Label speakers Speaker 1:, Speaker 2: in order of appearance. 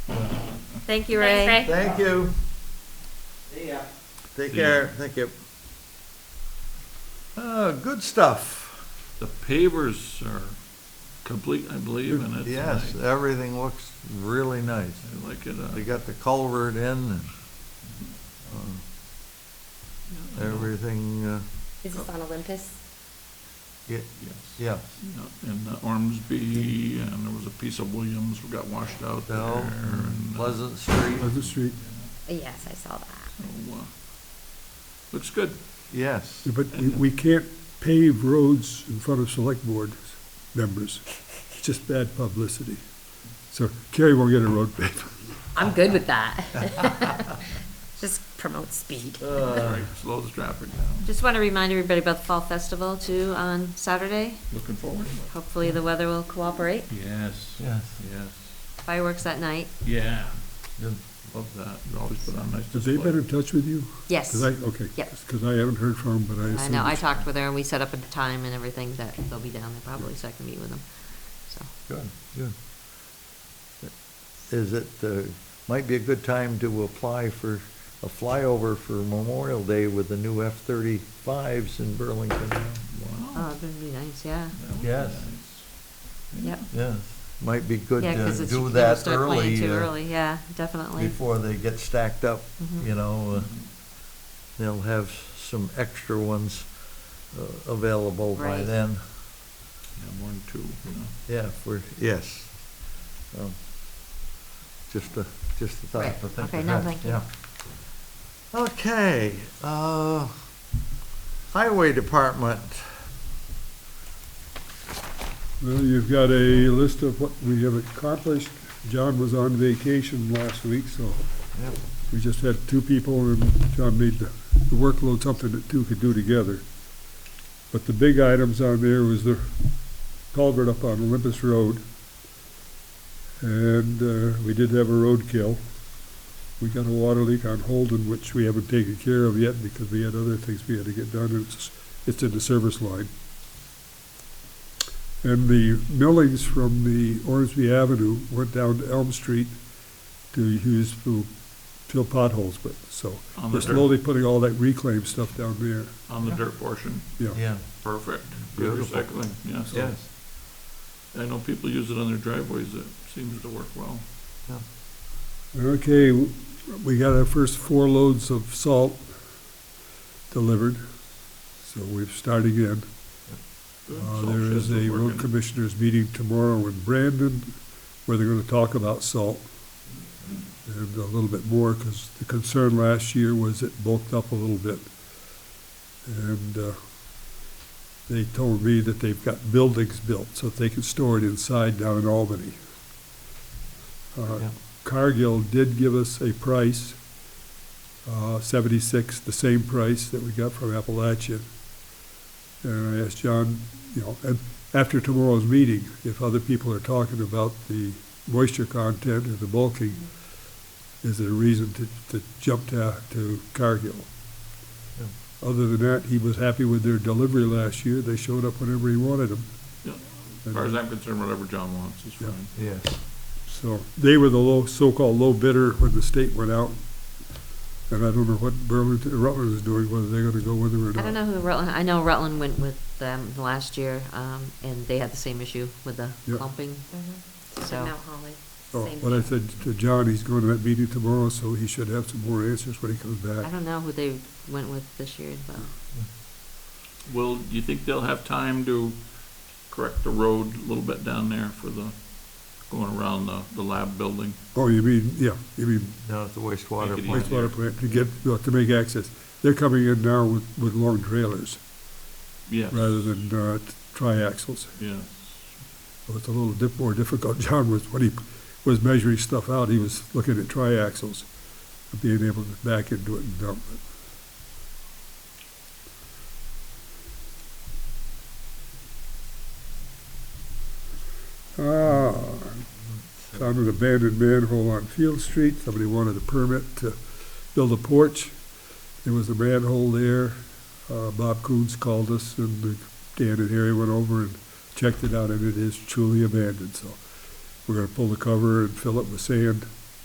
Speaker 1: Thank you,
Speaker 2: Thanks,
Speaker 1: Ray.
Speaker 2: Ray.
Speaker 3: Thank you.
Speaker 4: See ya.
Speaker 3: Take
Speaker 5: See ya.
Speaker 3: care. Thank you. Uh, good stuff.
Speaker 5: The pavers are complete, I believe, and it's
Speaker 3: Yes,
Speaker 5: nice.
Speaker 3: everything looks really nice.
Speaker 5: I like it.
Speaker 3: They
Speaker 5: uh,
Speaker 3: got the culvert in and uh,
Speaker 5: yeah,
Speaker 3: everything, uh,
Speaker 1: Is this on Olympus?
Speaker 3: ye-
Speaker 5: Yes.
Speaker 3: yeah.
Speaker 5: Yeah, And uh, Ormsby, and there was a piece of Williams that got washed out there.
Speaker 3: No,
Speaker 5: and, uh,
Speaker 3: Pleasant Street,
Speaker 6: Pleasant Street,
Speaker 1: Yes, I saw that.
Speaker 5: so, uh, Looks good.
Speaker 3: yes.
Speaker 6: but we, we can't pave roads in front of select board members. It's just bad publicity. So Kerry won't get a road paved.
Speaker 1: I'm good with that. Just promote speed.
Speaker 5: Mm-hmm.
Speaker 3: Uh,
Speaker 5: Right, Slows the traffic down.
Speaker 1: Just want to remind everybody about the Fall Festival too on Saturday.
Speaker 5: Looking forward to it.
Speaker 1: Hopefully the weather will cooperate.
Speaker 5: Yes.
Speaker 3: Yes.
Speaker 5: Yes.
Speaker 1: Fireworks that night.
Speaker 5: Yeah. Love that. You always put on a nice
Speaker 6: Have
Speaker 5: display.
Speaker 6: they been in touch with you?
Speaker 1: Yes.
Speaker 6: Because I, okay.
Speaker 1: Yes.
Speaker 6: Because I haven't heard from 'em, but I assume.
Speaker 1: I know, I
Speaker 6: it's-
Speaker 1: talked with her and we set up a time and everything that they'll be down there probably, so I can meet with them. So,
Speaker 3: Good, good. Is it, uh, might be a good time to apply for a flyover for Memorial Day with the new F-35s in Burlington.
Speaker 5: Wow.
Speaker 1: oh, that'd be nice, yeah.
Speaker 5: that would be
Speaker 3: Yes.
Speaker 5: nice.
Speaker 1: Yep.
Speaker 3: Yes, might be good
Speaker 1: Yeah, 'cause
Speaker 3: to
Speaker 1: it's-
Speaker 3: do
Speaker 1: people
Speaker 3: that
Speaker 1: start playing
Speaker 3: early,
Speaker 1: Too
Speaker 3: uh,
Speaker 1: early, yeah, definitely.
Speaker 3: before they get stacked up,
Speaker 1: Mhm.
Speaker 3: you know. uh, They'll have some extra ones uh, available by
Speaker 1: Right.
Speaker 3: then.
Speaker 5: Yeah, more than two, you know.
Speaker 3: Yeah, for, yes. Um, Just a, just a thought
Speaker 1: Right.
Speaker 3: to think
Speaker 1: Okay, no,
Speaker 3: ahead,
Speaker 1: thank you.
Speaker 3: yeah. Okay, uh, Highway Department,
Speaker 6: Well, you've got a list of what we have accomplished. John was on vacation last week, so
Speaker 3: Yep.
Speaker 6: we just had two people, and John made the the workload something that two could do together. But the big items on there was the culvert up on Olympus Road, and uh, we did have a roadkill. We got a water leak on Holden, which we haven't taken care of yet because we had other things we had to get done. It's, it's in the service line. And the millings from the Ormsby Avenue went down to Elm Street to use to fill potholes with, so.
Speaker 5: On the
Speaker 6: We're
Speaker 5: dirt.
Speaker 6: slowly putting all that reclaim stuff down there,
Speaker 5: On the dirt portion,
Speaker 6: yeah.
Speaker 3: yeah,
Speaker 5: perfect. Good
Speaker 3: Beautiful.
Speaker 5: recycling, yeah. so-
Speaker 3: yes.
Speaker 5: I know people use it on their driveways. It seems to work well.
Speaker 6: Okay, w- we got our first four loads of salt delivered, so we're starting in.
Speaker 5: Good.
Speaker 6: Uh,
Speaker 5: Salt
Speaker 6: There
Speaker 5: sheds
Speaker 6: is
Speaker 5: are
Speaker 6: a road
Speaker 5: working.
Speaker 6: commissioners meeting tomorrow in Brandon where they're gonna talk about salt and a little bit more, because the concern last year was it bulked up a little bit. And, uh, they told me that they've got buildings built, so that they can store it inside down in Albany. Uh,
Speaker 3: Yeah.
Speaker 6: Cargill did give us a price, uh, seventy-six, the same price that we got from Appalachia. And I asked John, you know, and after tomorrow's meeting, if other people are talking about the moisture content or the bulking, is there a reason to, to jump to, to Cargill?
Speaker 3: Yeah.
Speaker 6: Other than that, he was happy with their delivery last year. They showed up whenever he wanted them.
Speaker 5: Yeah. As far as I'm concerned, whatever John wants is
Speaker 6: Yeah.
Speaker 5: fine.
Speaker 3: Yes,
Speaker 6: So they were the low, so-called low bidder when the state went out. And I don't know what Burlington, Rutland is doing, whether they're gonna go with it or not.
Speaker 1: I don't know who Rutland, I know Rutland went with them last year, um, and they had the same issue with the
Speaker 6: Yeah.
Speaker 1: clumping, so.
Speaker 2: And Mount Holly,
Speaker 6: Oh,
Speaker 2: same
Speaker 6: What I
Speaker 2: thing.
Speaker 6: said to John, he's going to that meeting tomorrow, so he should have some more answers when he comes
Speaker 1: I
Speaker 6: back.
Speaker 1: don't know who they went with this year, but
Speaker 5: Will, do you think they'll have time to correct the road a little bit down there for the, going around the, the lab building?
Speaker 6: Oh, you mean, yeah, you mean
Speaker 3: down at the wastewater
Speaker 5: Make it
Speaker 3: plant.
Speaker 5: easy.
Speaker 6: wastewater plant to get, well, to make access. They're coming in now with, with long trailers
Speaker 5: Yeah.
Speaker 6: rather than, uh, triaxles.
Speaker 5: Yeah.
Speaker 6: So It's a little dip, more difficult. John was, when he was measuring stuff out, he was looking at triaxles, and being able to back into it and dump it. Ah, found Ah, an abandoned manhole on Field Street. Somebody wanted a permit to build a porch. There was a manhole there. Uh, Bob Coons called us and the- Dan and Harry went over and checked it out and it is truly abandoned, so we're gonna pull the cover and fill it with sand